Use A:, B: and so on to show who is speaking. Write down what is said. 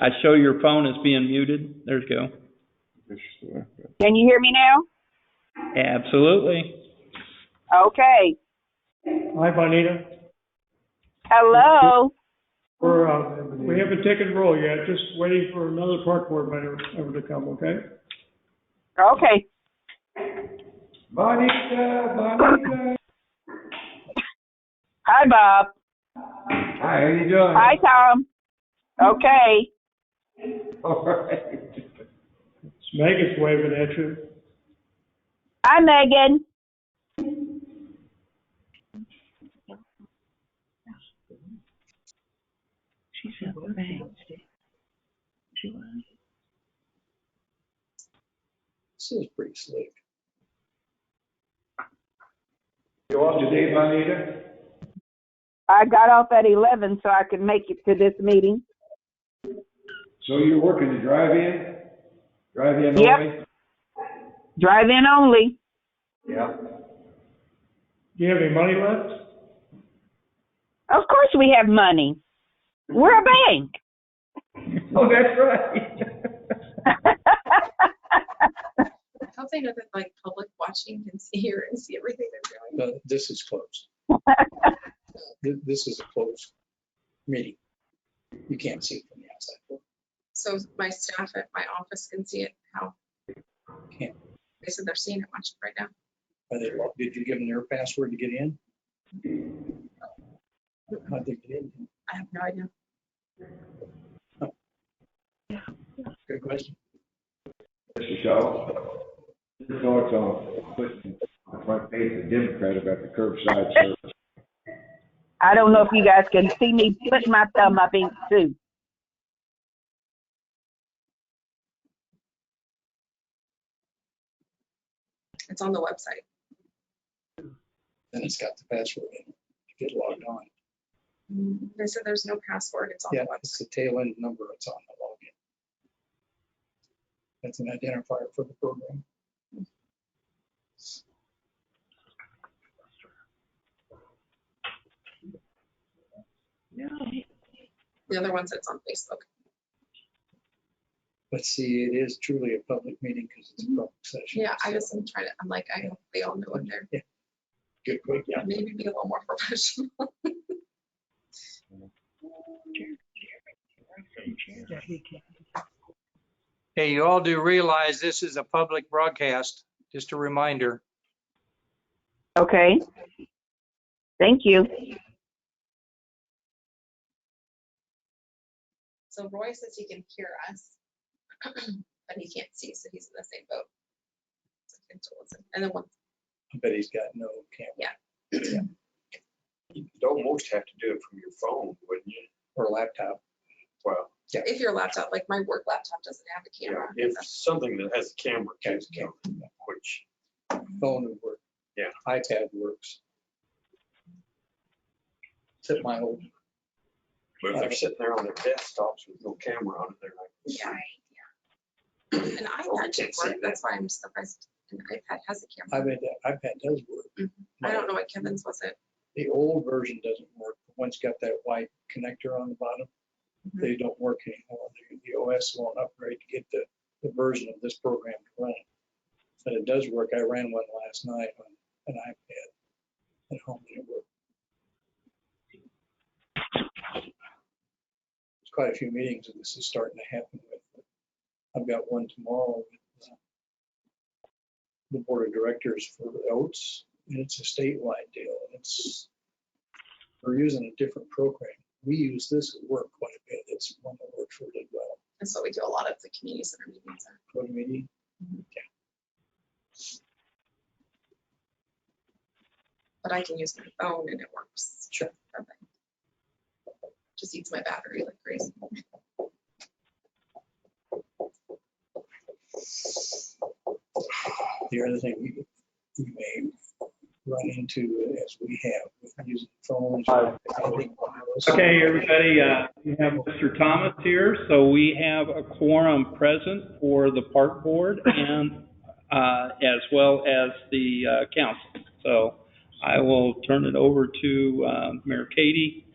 A: I show your phone is being muted. There's go.
B: Can you hear me now?
A: Absolutely.
B: Okay.
C: Hi, Bonita.
B: Hello.
C: We're, uh, we haven't taken roll yet, just waiting for another park board member member to come, okay?
B: Okay.
D: Bonita, Bonita.
B: Hi, Bob.
D: Hi, how you doing?
B: Hi, Tom. Okay.
D: All right.
C: It's Megan's waving at you.
B: Hi, Megan.
E: She's at the bank. She was.
F: This is pretty slick.
D: You off today, Bonita?
B: I got off at 11 so I could make it to this meeting.
D: So you're working the drive-in? Drive-in
B: Yep.
D: only?
B: Drive in only.
D: Yeah.
C: Do you have any money left?
B: Of course, we have money. We're a bank.
D: Oh, that's right.
G: I hope they know that like public watching can see here and see everything they're
F: No,
G: doing.
F: Uh, this is closed. Th- This is a closed meeting. You can't see it from the outside.
G: So my staff at my office can see it, how
F: Can't.
G: they said they're seeing it, watching it right now.
F: Are they, locked? did you give them their password to get in? How'd they get in?
G: I have no idea.
F: Good question.
D: Mr. Shaw, your thoughts on putting the front page of the Democrat about the curbside service?
B: I don't know if you guys can see me putting my thumb up in too.
G: It's on the website.
F: Then it's got the password in. it. Get logged on.
G: They said there's no password. It's on
F: Yeah,
G: the
F: it's
G: website.
F: the tail end number. It's on the login. That's an identifier for the program.
G: The other ones that's on Facebook.
F: Let's see, it is truly a public meeting because it's a public session.
G: Mm-hmm. Yeah, I
F: so
G: just am trying to, I'm like, I hope they all know what they're,
F: Good, quick, yeah.
G: maybe be a little more professional.
H: Hey, you all do realize this is a public broadcast, just a reminder.
B: Okay. Thank you.
G: So Roy says he can hear us, but he can't see, so he's in the same boat. So he can still listen. And then one,
F: I bet he's got no camera
I: You'd almost have to do it from your phone, wouldn't you?
F: or laptop.
I: Well,
G: if your laptop, like my work laptop doesn't have a
I: yeah,
G: camera.
I: if
G: that's-
I: something that has a camera,
F: Has a
I: camera, which,
G: Mm-hmm.
F: Phone would work.
I: Yeah.
F: iPad works. Except my old,
I: but if they're sitting there on their desktops with no camera on it, they're like.
G: Yeah, yeah. An iPad should
I: can't see
G: work.
I: that.
G: That's why I'm surprised an iPad has a
F: I
G: camera.
F: bet that iPad does work.
G: Mhm. I don't know what Kevin's was it.
F: The old version doesn't work. The one's got that white connector on the bottom.
G: Mhm.
F: They don't work anymore. The- The OS won't upgrade to get the, the version of this program to run. But it does work. I ran one last night on an iPad at home and it worked. There's quite a few meetings and this is starting to happen with. I've got one tomorrow with uh, the board of directors for Oats and it's a statewide deal. It's, we're using a different program. We use this at work quite a bit. It's one that works really well.
G: That's what we do a lot of the community center meetings. are.
F: What do you mean?
G: But I can use my phone and it works.
F: Sure.
G: Perfect. Just eats my battery like crazy.
F: The other thing we, we may run into as we have with using phones. I think one of us-
A: Okay, everybody, uh, we have Mr. Thomas here, so we have a quorum present for the park board and, uh, as well as the, uh, council. So I will turn it over to, uh, Mayor Katie